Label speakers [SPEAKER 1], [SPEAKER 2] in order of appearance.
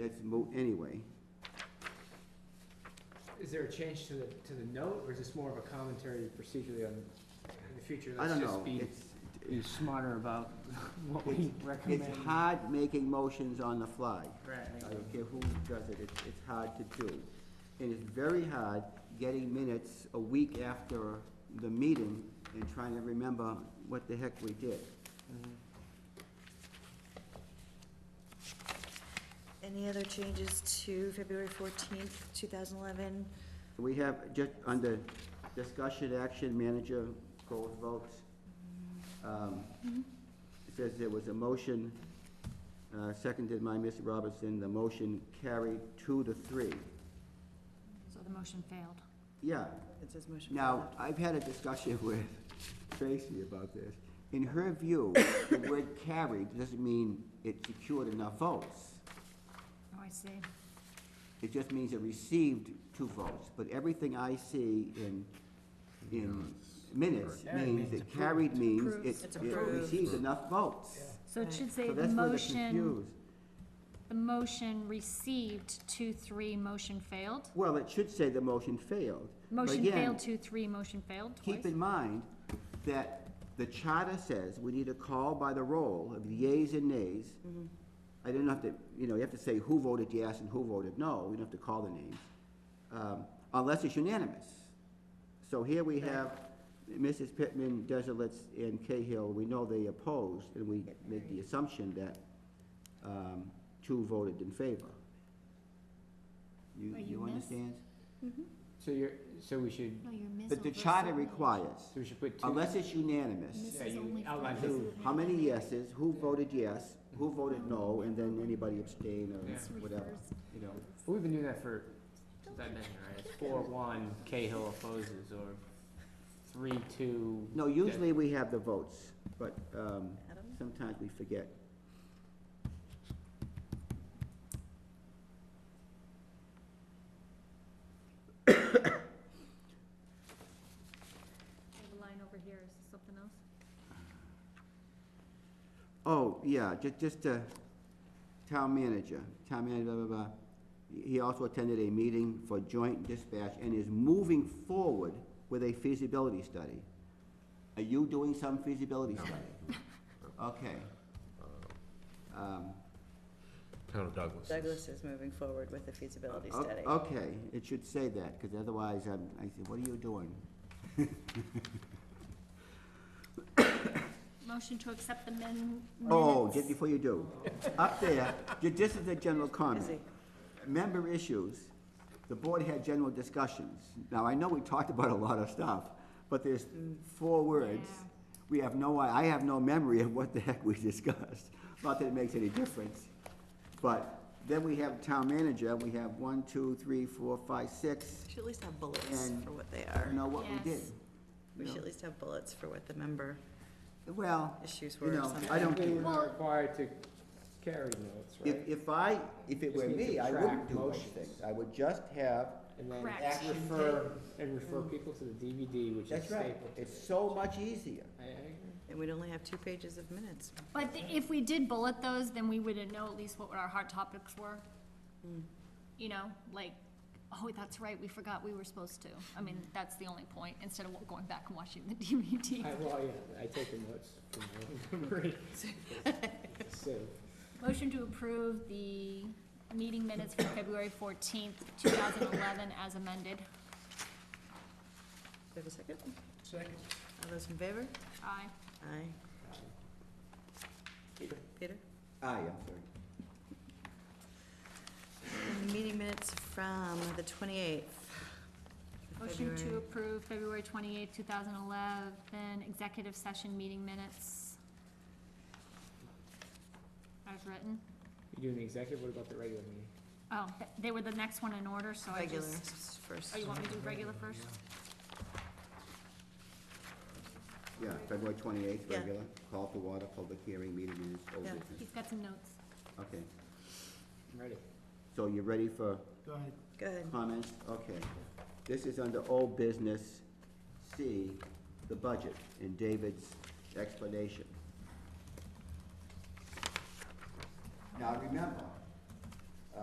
[SPEAKER 1] that's moot anyway.
[SPEAKER 2] Is there a change to the, to the note, or is this more of a commentary procedurally on, in the future?
[SPEAKER 1] I
[SPEAKER 2] let's
[SPEAKER 1] don't
[SPEAKER 2] just
[SPEAKER 1] know,
[SPEAKER 2] be-
[SPEAKER 1] it's,
[SPEAKER 2] Be smarter about what we
[SPEAKER 1] it's,
[SPEAKER 2] recommend.
[SPEAKER 1] it's hard making motions on the fly.
[SPEAKER 2] Right.
[SPEAKER 1] I don't care who does it, it's, it's hard to do. And it's very hard getting minutes a week after the meeting and trying to remember what the heck we did.
[SPEAKER 3] Any other changes to February fourteenth, two thousand eleven?
[SPEAKER 1] We have, just under discussion action, manager goals votes. um, It says there was a motion, uh, seconded by Ms. Robertson, the motion carried two to three.
[SPEAKER 4] So the motion failed.
[SPEAKER 1] Yeah,
[SPEAKER 3] It says motion.
[SPEAKER 1] now, I've had a discussion with Tracy about this. In her view, the word carried doesn't mean it secured enough votes.
[SPEAKER 4] Oh, I see.
[SPEAKER 1] It just means it received two votes, but everything I see in, in minutes
[SPEAKER 2] Carried
[SPEAKER 1] means
[SPEAKER 2] means
[SPEAKER 1] it carried means
[SPEAKER 3] Approved.
[SPEAKER 1] it,
[SPEAKER 3] It's
[SPEAKER 1] it
[SPEAKER 3] approved.
[SPEAKER 1] received enough votes.
[SPEAKER 4] So it should say
[SPEAKER 1] So
[SPEAKER 4] the
[SPEAKER 1] that's where they're
[SPEAKER 4] motion,
[SPEAKER 1] confused.
[SPEAKER 4] the motion received two, three, motion failed?
[SPEAKER 1] Well, it should say the motion failed. But
[SPEAKER 4] Motion
[SPEAKER 1] again,
[SPEAKER 4] failed, two, three, motion failed
[SPEAKER 1] Keep
[SPEAKER 4] twice?
[SPEAKER 1] in mind that the charter says we need a call by the roll of yeas and nays.
[SPEAKER 4] Mm-hmm.
[SPEAKER 1] I didn't have to, you know, you have to say who voted yes and who voted no, we don't have to call the names, um, unless it's unanimous. So here we have Mrs. Pittman, Desilts, and Cahill, we know they opposed, and we make the assumption that, um, two voted in favor. You,
[SPEAKER 4] But you
[SPEAKER 1] you
[SPEAKER 4] missed-
[SPEAKER 1] understand?
[SPEAKER 2] So you're, so we should,
[SPEAKER 4] No, you're missing.
[SPEAKER 1] But the charter requires,
[SPEAKER 2] so we should put two.
[SPEAKER 1] unless it's unanimous,
[SPEAKER 4] This
[SPEAKER 2] Yeah,
[SPEAKER 4] is
[SPEAKER 2] you
[SPEAKER 4] only
[SPEAKER 2] outline
[SPEAKER 4] for-
[SPEAKER 2] who,
[SPEAKER 1] how many uh, yeses, who voted yes, who voted no, and then anybody abstain
[SPEAKER 2] This
[SPEAKER 1] or whatever, you know.
[SPEAKER 2] Well, Oh, we've been doing that for, since I've been here, right? It's four, one, Cahill opposes, or three, two.
[SPEAKER 1] No, usually we have the votes, but, um,
[SPEAKER 3] Adam?
[SPEAKER 1] sometimes we forget.
[SPEAKER 4] I have a line over here, is this something else?
[SPEAKER 1] Oh, yeah, ju- just, uh, town manager, town manager, blah, blah, blah. He also attended a meeting for joint dispatch and is moving forward with a feasibility study. Are you doing some feasibility study? Okay. Um,
[SPEAKER 5] Town of Douglas. is-
[SPEAKER 6] Douglas is moving forward with the feasibility
[SPEAKER 1] o-
[SPEAKER 6] study.
[SPEAKER 1] Okay, it should say that, because otherwise, I'm, I say, what are you doing?
[SPEAKER 4] Motion to accept the min- minutes.
[SPEAKER 1] Oh, just before you do, up there, ju- this is a general
[SPEAKER 6] Is he?
[SPEAKER 1] comment. member issues, the board had general discussions. Now, I know we talked about a lot of stuff, but there's four words.
[SPEAKER 4] Yeah.
[SPEAKER 1] We have no, I have no memory of what the heck we discussed. Not that it makes any difference. But then we have town manager, we have one, two, three, four, five, six.
[SPEAKER 6] Should at least have bullets
[SPEAKER 1] And-
[SPEAKER 6] for what they
[SPEAKER 1] I don't
[SPEAKER 6] are.
[SPEAKER 1] know what we did.
[SPEAKER 4] Yes.
[SPEAKER 6] We
[SPEAKER 1] No.
[SPEAKER 6] should at least have bullets for what the member
[SPEAKER 1] Well,
[SPEAKER 6] issues
[SPEAKER 1] you
[SPEAKER 6] were or
[SPEAKER 1] know, I
[SPEAKER 6] something.
[SPEAKER 1] don't
[SPEAKER 2] Technically,
[SPEAKER 1] care.
[SPEAKER 2] we're not required to carry notes,
[SPEAKER 1] If,
[SPEAKER 2] right?
[SPEAKER 1] if I, if it
[SPEAKER 2] Just
[SPEAKER 1] were
[SPEAKER 2] need to
[SPEAKER 1] me, I
[SPEAKER 2] track
[SPEAKER 1] wouldn't do those
[SPEAKER 2] motions.
[SPEAKER 1] things. I would just have,
[SPEAKER 2] And then
[SPEAKER 4] Correct.
[SPEAKER 2] act- refer, and refer people to the DVD, which is
[SPEAKER 1] that's right,
[SPEAKER 2] stapled. to
[SPEAKER 1] it's
[SPEAKER 2] the-
[SPEAKER 1] so much easier.
[SPEAKER 2] I, I agree.
[SPEAKER 6] And we'd only have two pages of minutes.
[SPEAKER 4] But th- if we did bullet those, then we wouldn't know at least what our hot topics were. You know, like, oh, that's right, we forgot we were supposed to. I mean, that's the only point, instead of going back and watching the DVD.
[SPEAKER 2] I, well, yeah, I take the notes from my own memory. So,
[SPEAKER 4] Motion to approve the meeting minutes for February fourteenth, two thousand eleven, as amended.
[SPEAKER 6] Do you have a second?
[SPEAKER 2] Second.
[SPEAKER 6] All those in favor?
[SPEAKER 4] Aye.
[SPEAKER 6] Aye. Peter?
[SPEAKER 1] Aye, I'm sorry.
[SPEAKER 6] And Meeting minutes from the 28th. of
[SPEAKER 4] Motion to
[SPEAKER 6] February.
[SPEAKER 4] approve February twenty-eighth, two thousand eleven, executive session meeting minutes. As written.
[SPEAKER 2] you're doing the executive, what about the regular meeting?
[SPEAKER 4] Oh, th- they were the next one in order, so Oh, I
[SPEAKER 6] Regular
[SPEAKER 4] just,
[SPEAKER 6] s- first.
[SPEAKER 4] oh, you want me to do regular first?
[SPEAKER 1] Yeah, February twenty-eighth,
[SPEAKER 6] Yeah.
[SPEAKER 1] regular, call to water, public hearing, meeting minutes, old
[SPEAKER 6] Yeah.
[SPEAKER 1] business.
[SPEAKER 4] He's got some notes.
[SPEAKER 1] Okay,
[SPEAKER 2] I'm ready.
[SPEAKER 1] so you're ready for
[SPEAKER 6] Go ahead.
[SPEAKER 1] comments? Okay. This is under old business C, the budget, and David's explanation. Now, remember,